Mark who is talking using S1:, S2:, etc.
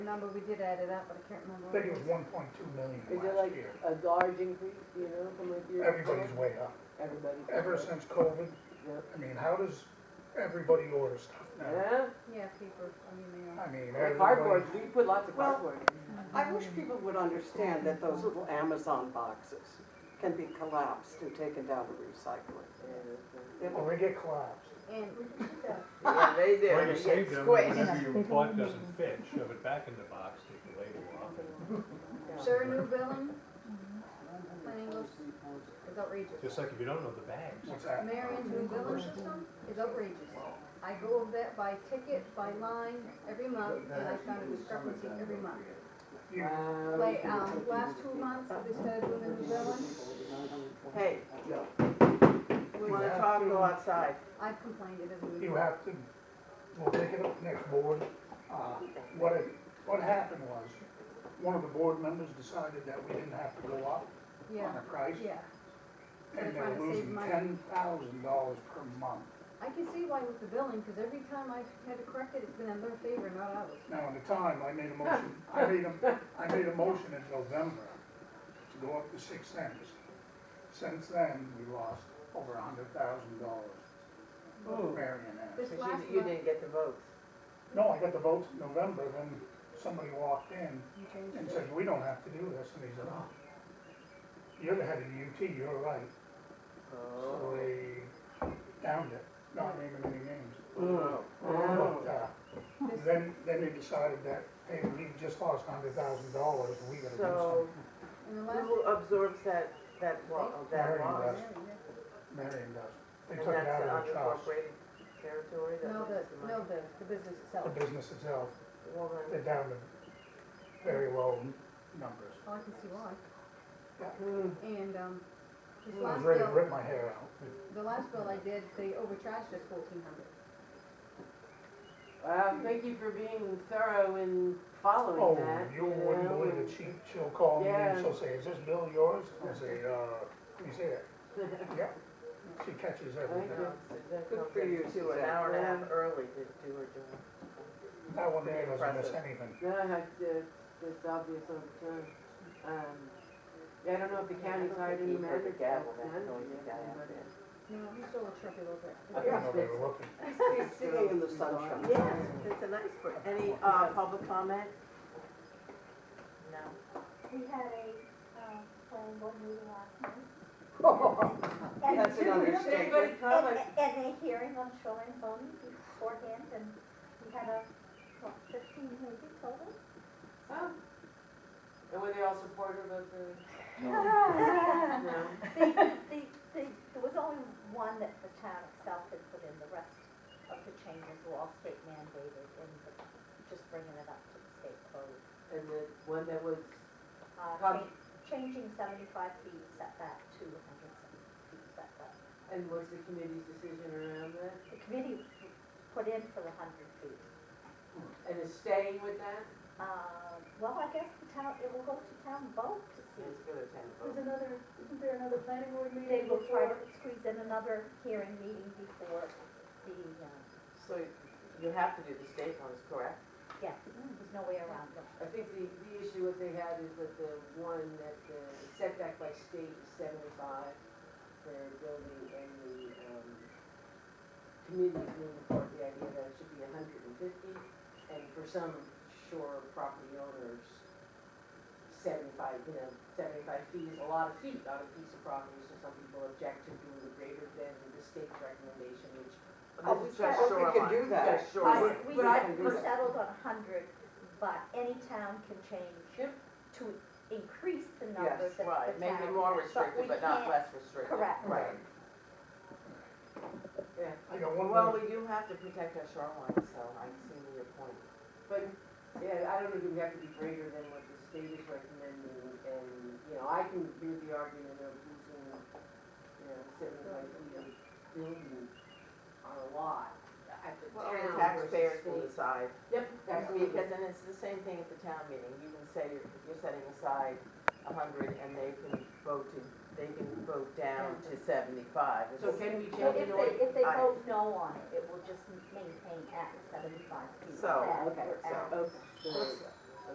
S1: Number, we did add it up, but I can't
S2: I
S1: remember.
S2: think it was one point two million
S3: Is it
S2: last
S3: like
S2: year.
S3: a large increase, you know, from a year?
S2: Everybody's way up.
S3: Everybody.
S2: Ever since COVID,
S3: Yep.
S2: I mean, how does everybody order stuff now?
S3: Yeah,
S1: Yeah, paper, I mean, they are.
S2: I mean,
S3: cardboard,
S2: everybody,
S3: we put lots of
S4: Well-
S3: cardboard
S4: I wish people would understand that those little Amazon boxes can be collapsed and taken down to recycling.
S3: in.
S4: They
S2: well,
S4: will-
S2: they get collapsed.
S1: And
S5: Yeah, they do.
S6: Well, you
S5: It
S6: save
S5: gets
S6: them,
S5: squished.
S6: whatever you bought doesn't fit, shove it back in the box, take the label off. and-
S1: is there a new billing? Plain English is outrageous.
S6: Just like if you don't know the bags.
S2: What's that?
S1: Marion's new billing system is outrageous. I go over that by ticket, by line, every month, and I found a discrepancy every month.
S2: You-
S3: Wow.
S1: Like,
S5: uh,
S1: um, last two months, they started doing the new billing,
S5: Hey, we wanna talk, go outside.
S1: I've complained it doesn't.
S2: You have to, we'll take it up next board. Uh, What, it- what happened was, one of the board members decided that we didn't have to go up on
S1: Yeah,
S2: the price,
S1: yeah.
S2: and
S1: They're trying
S2: they're
S1: to save
S2: losing
S1: money.
S2: ten thousand dollars per month.
S1: I can see why with the billing, because every time I had to correct it, it's been in their favor, not ours.
S2: Now, at the time, I made a motion, I made a, I made a motion in November to go up to six cents. Since then, we lost over a hundred thousand dollars.
S4: Oh.
S2: Marion Ave.
S1: This
S5: Cause
S1: last
S5: you, you
S1: month,
S5: didn't get the votes.
S2: No, I got the votes in November, then somebody walked in
S1: you changed
S2: and
S1: it.
S2: said, we don't have to do this, and he said, oh, you're the head of the UT, you're right.
S4: Oh.
S2: So they downed it, not naming any names.
S5: Oh.
S2: But, uh,
S1: This-
S2: then, then they decided that, hey, we just lost a hundred thousand dollars, we gotta do
S5: So,
S2: something.
S1: And the last.
S5: who absorbs that, that loss, that
S2: Marion
S5: loss?
S2: does.
S1: Yeah,
S2: Marion does. They
S5: And
S2: took it
S5: that's
S2: out
S5: the
S2: of the trust,
S5: unincorporated territory
S1: yeah.
S5: that
S1: No, the,
S5: makes the
S1: no,
S5: money.
S1: the, the business
S2: the
S1: itself.
S2: business itself,
S5: Well, then,
S2: they're down to very low numbers.
S1: Oh, I can see why.
S3: Hmm.
S1: And, um, this
S2: I was
S1: last
S2: ready to
S1: bill,
S2: rip my hair out.
S1: the last bill I did, they overcharged us fourteen hundred.
S3: Well, thank you for being thorough in following
S2: Oh,
S3: that.
S2: you wouldn't
S3: know,
S2: believe it,
S3: and-
S2: she, she'll call me and
S3: Yeah.
S2: she'll say, is this bill yours? I'll say, uh, let me see it. Yeah, she catches
S3: Thank
S2: everything.
S3: you.
S5: good for you, she was an hour and a half early to do her job.
S2: That one man
S5: Very
S2: doesn't miss
S5: impressive.
S2: anything.
S3: No, I have to, it's obvious over time. Um, yeah, I don't know if the county's hired any
S5: He heard
S3: manager.
S5: the gavel, that
S3: manager,
S5: noisy guy out
S3: anybody.
S5: there.
S1: You know, we still a truck a little bit.
S2: I didn't know they were looking.
S4: He's sitting in the sunshine.
S5: Yes, it's a nice, bird. any, uh, public comment? No.
S7: We had a, um, planning board meeting last night. And-
S5: That's an understatement.
S7: And, and a hearing on shoreline zoning beforehand, and we had a, what, fifteen maybe total?
S3: Oh. And were they all supportive of the? No.
S7: The, the, the, there was only one that the town itself had put in, the rest of the changes were all state mandated, and the- just bringing it up to the state code.
S3: And the one that was,
S7: Uh,
S3: How-
S7: cha- Changing seventy-five feet setback to hundred feet setback.
S3: and was the committee's decision around that?
S7: The committee put in for the hundred feet.
S3: And is staying with that?
S7: Uh, well, I guess the town, it will go to town vote to see.
S3: It's gonna attend
S8: There's another, isn't there another planning board meeting?
S7: They will try to
S8: before?
S7: squeeze in another hearing meeting before the, uh,
S5: So you have to do the state ones, correct?
S7: yes, there's no way around them.
S3: I think the, the issue what they had is that the one that the setback by state is seventy-five for building and the, um, committee's moving forward, the idea that it should be hundred and fifty. And for some shore property owners, seventy-five, you know, seventy-five feet is a lot of feet on a piece of property, so some people object to doing the greater than the state's recommendation, which.
S5: Oh, we
S3: Just
S5: said we could
S3: shoreline.
S5: do that.
S3: Just
S7: I-
S3: shoreline.
S7: We,
S3: But I-
S7: we settled on hundred, but any town can change
S3: Yep.
S7: to increase the numbers
S5: Yes,
S7: that the town.
S5: right, maybe more restrictive,
S7: we
S5: but not
S7: can't-
S5: less restrictive.
S7: correct.
S5: Right.
S3: Yeah.
S2: I got one
S5: Well,
S2: more,
S5: we do have to protect our shoreline, so I see your point.
S3: But, yeah, I don't know, do we have to be greater than what the state is recommending? And, you know, I can hear the argument of using, you know, seventy-five feet of building on a lot at the
S5: Well,
S3: town
S5: the taxpayers
S3: versus
S5: will
S3: state.
S5: decide,
S3: Yep, that's me,
S5: because then it's the same thing at the town meeting, you can say you're, you're setting aside a hundred and they can vote to, they can vote down to seventy-five. It's-
S3: so can we change
S7: But if
S3: it
S7: they, if they
S5: I-
S7: vote no on it, it will just maintain at seventy-five feet.
S5: So,
S7: back
S3: okay,
S7: or
S5: so-
S7: at-
S3: or?
S5: Let's-